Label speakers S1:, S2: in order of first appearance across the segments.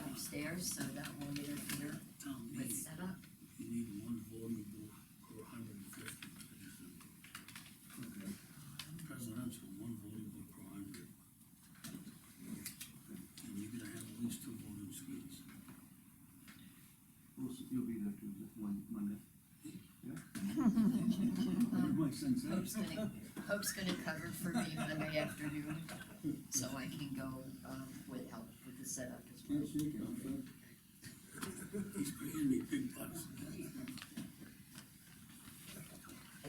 S1: upstairs, so that will interfere
S2: Town
S1: with
S2: meeting,
S1: setup.
S2: you need one voting book for hundred and fifty. Presidential, one voting book per hundred. And you're gonna have at least two voting screens.
S3: Well, you'll be there Tuesday, Mon- Monday.
S2: You might sense that.
S1: Hope's gonna, Hope's gonna cover for me Monday afternoon, so I can go, um, with help with the setup as well.
S2: He's paying me big bucks.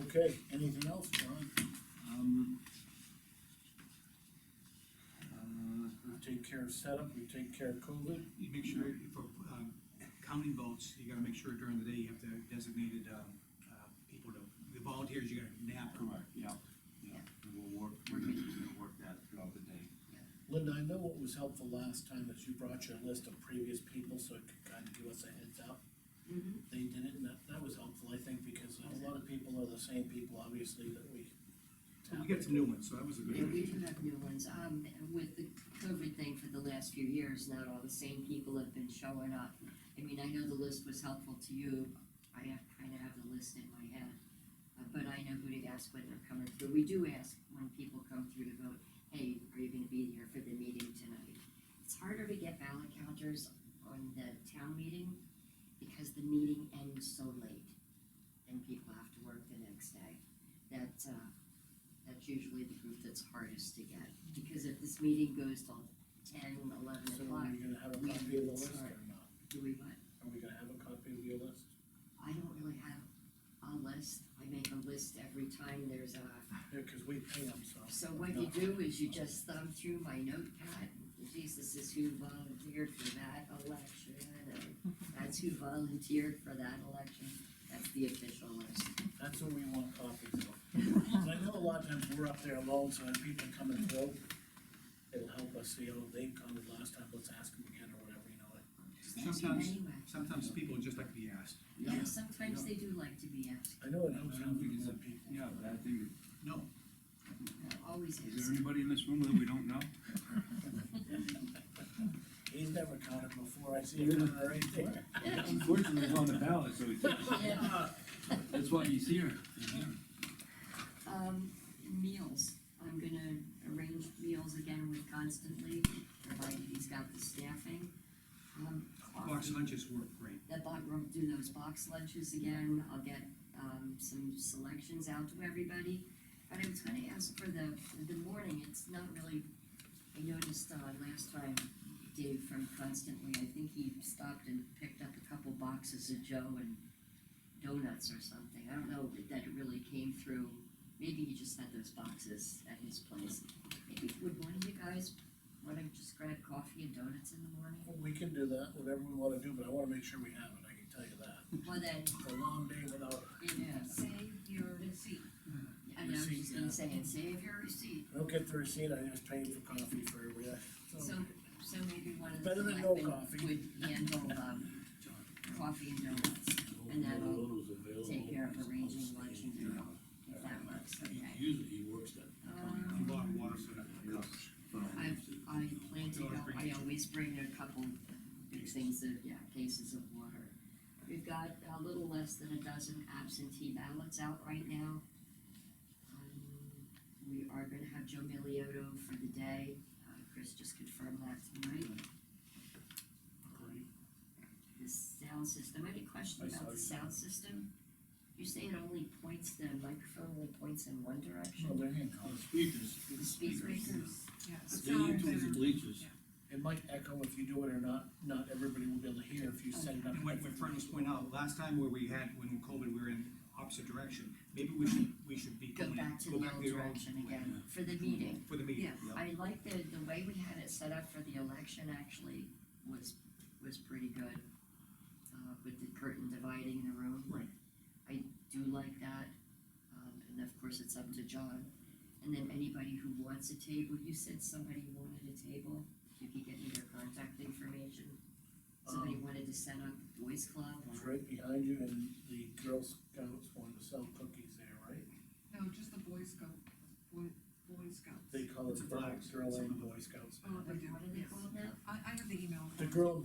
S2: Okay, anything else, John?
S3: Um. Uh,
S4: We take care of setup, we take care of COVID.
S5: You make sure, for, um, counting votes, you gotta make sure during the day you have to have designated, um, uh, people to, the volunteers, you gotta nap.
S3: correct, yeah, yeah, and we'll work, we're gonna work that throughout the day.
S4: Linda, I know what was helpful last time is you brought your list of previous people, so it could kind of give us a heads up.
S5: Mm-hmm.
S4: They did it, and that, that was helpful, I think, because a lot of people are the same people, obviously, that we.
S5: So we get some new ones, so that was a good
S1: Yeah, we
S5: idea.
S1: do have new ones, um, with the COVID thing for the last few years, not all the same people have been showing up. I mean, I know the list was helpful to you, I have, kinda have the list in my head, uh, but I know who to ask when they're coming through, we do ask when people come through to vote, hey, are you gonna be here for the meeting tonight? It's harder to get ballot counters on the town meeting, because the meeting ends so late, and people have to work the next day. That, uh, that's usually the group that's hardest to get, because if this meeting goes till ten, eleven
S4: So are
S1: o'clock,
S4: we gonna have a
S1: We-
S4: copy of the list or not?
S1: do we what?
S4: Are we gonna have a copy of your list?
S1: I don't really have a list, I make a list every time there's a,
S4: Yeah, cause we pay them, so.
S1: so what you do is you just thumb through my notepad. Jesus is who volunteered for that election, and that's who volunteered for that election, that's the official list.
S4: That's what we want copies of. 'Cause I know a lot of times we're up there alone, so when people come and through, it'll help us see, oh, they commented last time, let's ask them again or whatever, you know, like.
S5: Sometimes-
S1: Anyway,
S5: Sometimes people just like to be asked.
S1: yeah, sometimes they do like to be asked,
S4: I know it helps
S3: I don't think it's a-
S4: other people.
S3: Yeah, but I think,
S5: No,
S1: They're always
S3: is
S1: ask.
S3: there anybody in this room that we don't know?
S4: He's never counted before, I see it coming right there.
S3: Unfortunately, it's on the ballot, so it's-
S1: Yeah.
S4: Uh,
S3: that's why he's here.
S1: Um, meals, I'm gonna arrange meals again with constantly, provided he's got the staffing. Um,
S5: box
S1: coffee,
S5: lunches work great.
S1: the box, we'll do those box lunches again, I'll get, um, some selections out to everybody. But I was gonna ask for the, the morning, it's not really, I noticed, uh, last time, Dave from Constantly, I think he stopped and picked up a couple boxes of Joe and donuts or something, I don't know that it really came through. Maybe he just had those boxes at his place. Maybe, would one of you guys wanna just grab coffee and donuts in the morning?
S4: Well, We can do that, whatever we wanna do, but I wanna make sure we have it, I can tell you that.
S1: Well, then,
S4: It's a long day without it.
S1: it
S6: Save your receipt.
S4: Mm-hmm.
S1: I know, I'm just gonna say, and save your receipt,
S4: I don't get the receipt, I just pay for coffee for every day.
S1: so, so maybe one of the.
S4: Better than no
S1: selectmen
S4: coffee.
S1: Would handle, um, coffee and donuts, and that'll take care of arranging lunch and dinner, if that works, okay.
S2: Usually he works that.
S1: Um,
S5: A lot of water for that.
S1: I, I plan to, go- I always bring a couple big things of, yeah, cases of water. We've got a little less than a dozen absentee ballots out right now. Um, We are gonna have Joe Miliotto for the day, uh, Chris just confirmed that tonight. The sound system, any question
S4: I saw
S1: about the
S4: you.
S1: sound system? You say it only points, the microphone only points in one
S4: Oh,
S1: direction?
S4: there you
S2: Uh,
S4: go.
S2: Speakers,
S1: The speakers?
S6: Yeah.
S2: they use those bleachers.
S4: It might echo if you do it or not, not everybody will be able to hear if you set it up.
S5: And what, what Fran was pointing out, last time where we had, when COVID, we were in opposite direction, maybe we should, we should be.
S1: Go
S5: going-
S1: back to the
S5: go back
S1: old
S5: to our own-
S1: direction again, for the meeting.
S5: For the meeting.
S6: Yeah.
S1: I like the, the way we had it set up for the election actually was, was pretty good. Uh, with the curtain dividing the room.
S5: Right.
S1: I do like that, um, and of course it's up to John. And then anybody who wants a table, you said somebody wanted a table, you could get me their contact information. Somebody
S4: Um,
S1: wanted to set up Boys Club
S4: It's
S1: or,
S4: right behind you and the Girl Scouts wanted to sell cookies there, right?
S6: No, just the Boy Scout, Boy, Boy Scouts.
S4: They call
S5: It's a
S4: it Black
S5: flag.
S4: Girl and Boy Scouts.
S6: Oh,
S1: what
S6: they do,
S1: are they
S6: yes.
S1: called now?
S6: I, I have the email.
S4: The Girl and